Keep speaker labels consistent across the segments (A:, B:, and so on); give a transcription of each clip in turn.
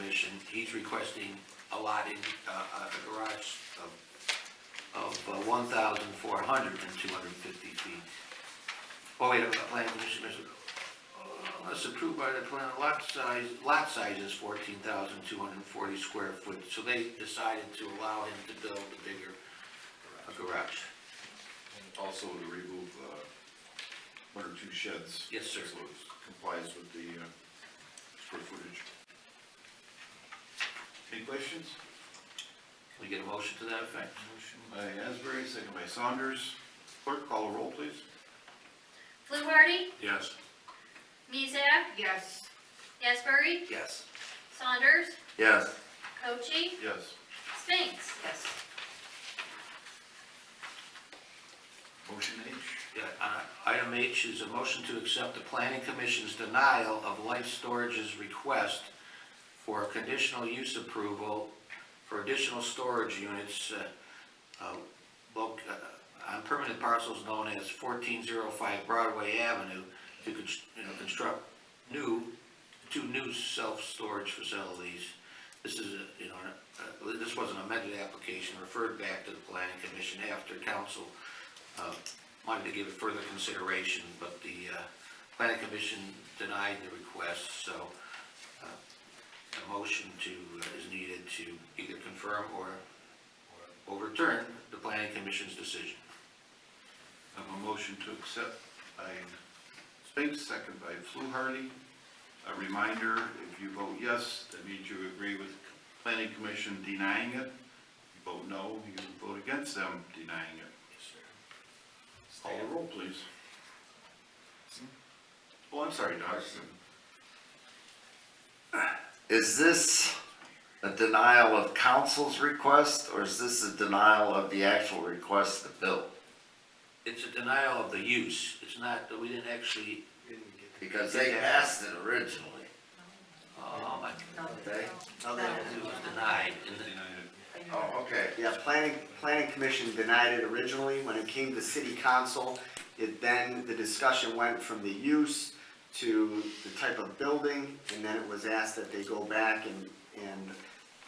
A: addition, he's requesting allotting, uh, a garage of, of uh, one thousand four hundred and two hundred and fifty feet. Oh, wait, a plan commission, Mr. Unless approved by the plan, lot size, lot size is fourteen thousand two hundred and forty square foot, so they decided to allow him to build a bigger uh, garage.
B: Also to remove, uh, one or two sheds.
A: Yes, sir.
B: So it complies with the, uh, square footage.
C: Any questions?
A: We get a motion to that effect?
C: Motion by Asbury, second by Saunders. Clerk, call a roll, please.
D: Fluharty?
B: Yes.
D: Mizek?
E: yes,
D: Asbury?
A: Yes.
D: Saunders?
B: Yes.
D: Cochi?
C: Yes.
D: Spinks?
E: yes,
C: Motion H.
A: Yeah, uh, Item H is a motion to accept the planning commission's denial of Life Storage's request for a conditional use approval for additional storage units uh, uh, loc- uh, on permanent parcels known as 1405 Broadway Avenue to cons- you know, construct new, two new self-storage facilities. This is, a you know, uh, this was an amended application referred back to the planning commission after council uh, wanted to give it further consideration, but the uh, planning commission denied the request, so uh, a motion to, uh, is needed to either confirm or overturn the planning commission's decision.
C: I have a motion to accept by Spinks, second by Fluharty. A reminder, if you vote yes, that means you agree with planning commission denying it. You vote no, you vote against them denying it. Call a roll, please. Oh, I'm sorry, Doc.
F: Is this a denial of council's request, or is this a denial of the actual request to build?
A: It's a denial of the use, it's not, that we didn't actually,
F: Because they passed it originally,
A: um, I-
E: no.
F: okay?
A: no, that was- it was denied, and then,
C: Denied it.
F: Oh, okay.
G: Yeah, planning, planning commission denied it originally, when it came to city council, it then, the discussion went from the use to the type of building, and then it was asked that they go back and, and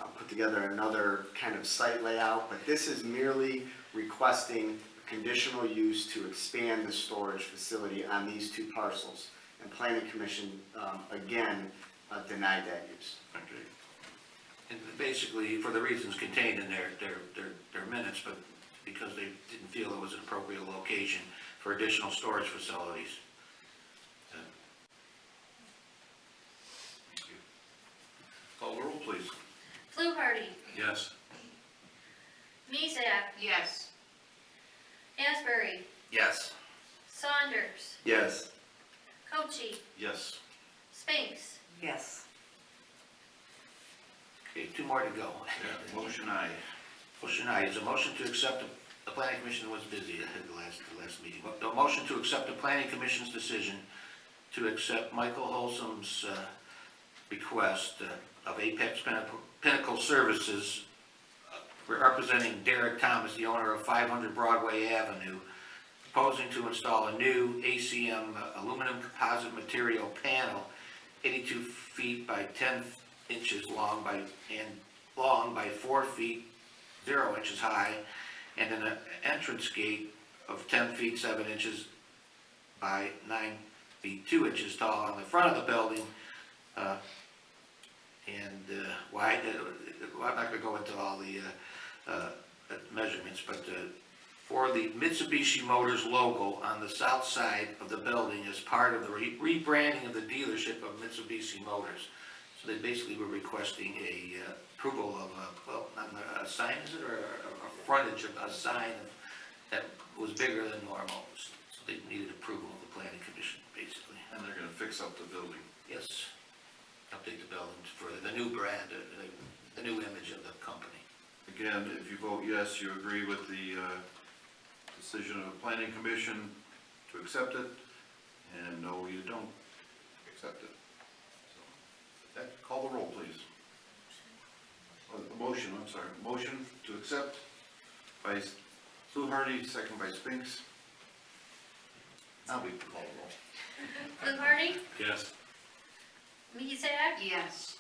G: uh, put together another kind of site layout, but this is merely requesting conditional use to expand the storage facility on these two parcels. And planning commission, um, again, uh, denied that use.
C: Okay.
A: and basically, for the reasons contained in their, their, their, their minutes, but because they didn't feel it was an appropriate location for additional storage facilities.
C: Call the roll, please.
D: Fluharty?
C: Yes.
D: Mizek?
E: yes,
D: Asbury?
F: Yes.
D: Saunders?
F: Yes.
D: Cochi?
C: Yes.
D: Spinks?
E: yes,
A: Okay, two more to go.
C: Yeah, Motion aye.
A: Motion I is a motion to accept, the- the planning commission was busy at the last, the last meeting. Mo- The motion to accept the planning commission's decision to accept Michael Holsom's uh, request uh, of Apex Pinnacle- Pinnacle Services, uh, representing Derek Thomas, the owner of 500 Broadway Avenue, proposing to install a new ACM aluminum composite material panel, 82 feet by 10 inches long by, and long by 4 feet zero inches high, and an entrance gate of ten feet, seven inches by nine feet, two inches tall on the front of the building. uh, And uh, wide, uh, well, I'm not gonna go into all the uh, uh, measurements, but uh, for the Mitsubishi Motors logo on the south side of the building as part of the re- rebranding of the dealership of Mitsubishi Motors. So they basically were requesting a uh, approval of, a- well, not a- a sign, is it, or a- a frontage of a sign that was bigger than normal. So they needed approval of the planning commission, basically.
C: And they're gonna fix up the building.
A: Yes, update the building for the new brand, uh, the- the new image of the company.
C: Again, if you vote yes, you agree with the, uh, decision of the planning commission to accept it, and no, you don't accept it. So, That, call the roll, please. Oh, the motion, I'm sorry, motion to accept by Fluharty, second by Spinks. Now we can call the roll.
D: Fluharty?
C: Yes.
D: Mizek?
E: yes,